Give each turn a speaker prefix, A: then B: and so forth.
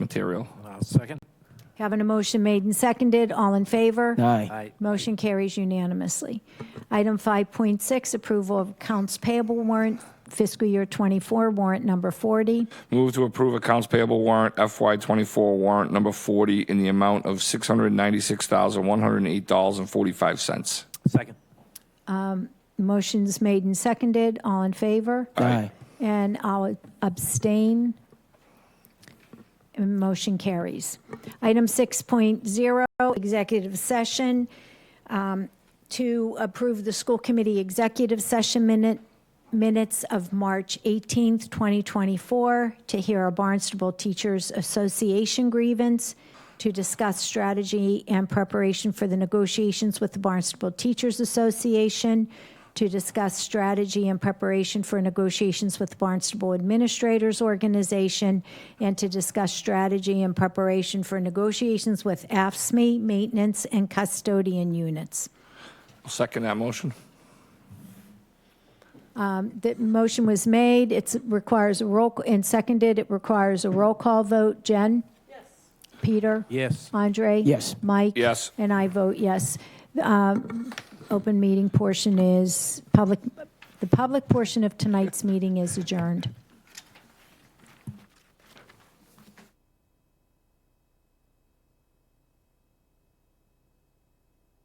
A: material.
B: I'll Uh, second.
C: Having a motion made and seconded, all in favor?
D: Aye.
B: Aye.
C: Motion carries unanimously. Item 5.6, approval of accounts payable warrant, fiscal year '24, warrant number 40.
A: Move to approve accounts payable warrant FY24 warrant number 40 in the amount of $696,108.45.
B: Second.
C: Motion's made and seconded, all in favor?
D: Aye.
C: And I'll abstain. And motion carries. Item 6.0, executive session, um, to approve the school committee executive session minute, minutes of March 18th, 2024, to hear a Barnstable Teachers Association grievance, to discuss strategy and preparation for the negotiations with the Barnstable Teachers Association, to discuss strategy and preparation for negotiations with Barnstable Administrators Organization, and to discuss strategy and preparation for negotiations with AFSME, E, maintenance, and custodian units.
A: Second that motion.
C: The motion was made, it requires a roll, and seconded, it requires a roll call vote. Jen? Yes. Peter?
B: Yes.
C: Andre?
D: Yes.
C: Mike?
A: Yes.
C: And I vote yes. Um, Open meeting portion is, public, the public portion of tonight's meeting is adjourned.